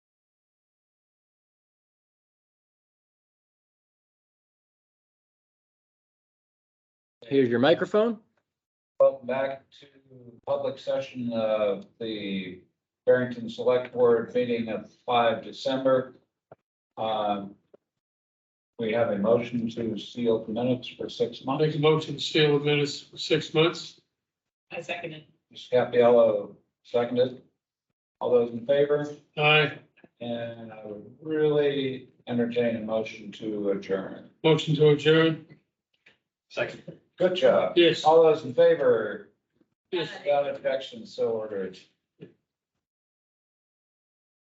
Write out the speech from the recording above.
here's your microphone. Welcome back to public session of the Barrington Select Board meeting of five December. Um, We have a motion to seal the minutes for six I'll months. make a motion to seal the minutes for six months. I second it. Ms. Capiello seconded. All those in favor? Aye, And I would really entertain a motion to adjourn. motion to adjourn. Second. Good job. Yes, All those in favor? yes. Uh, Without objection, so ordered.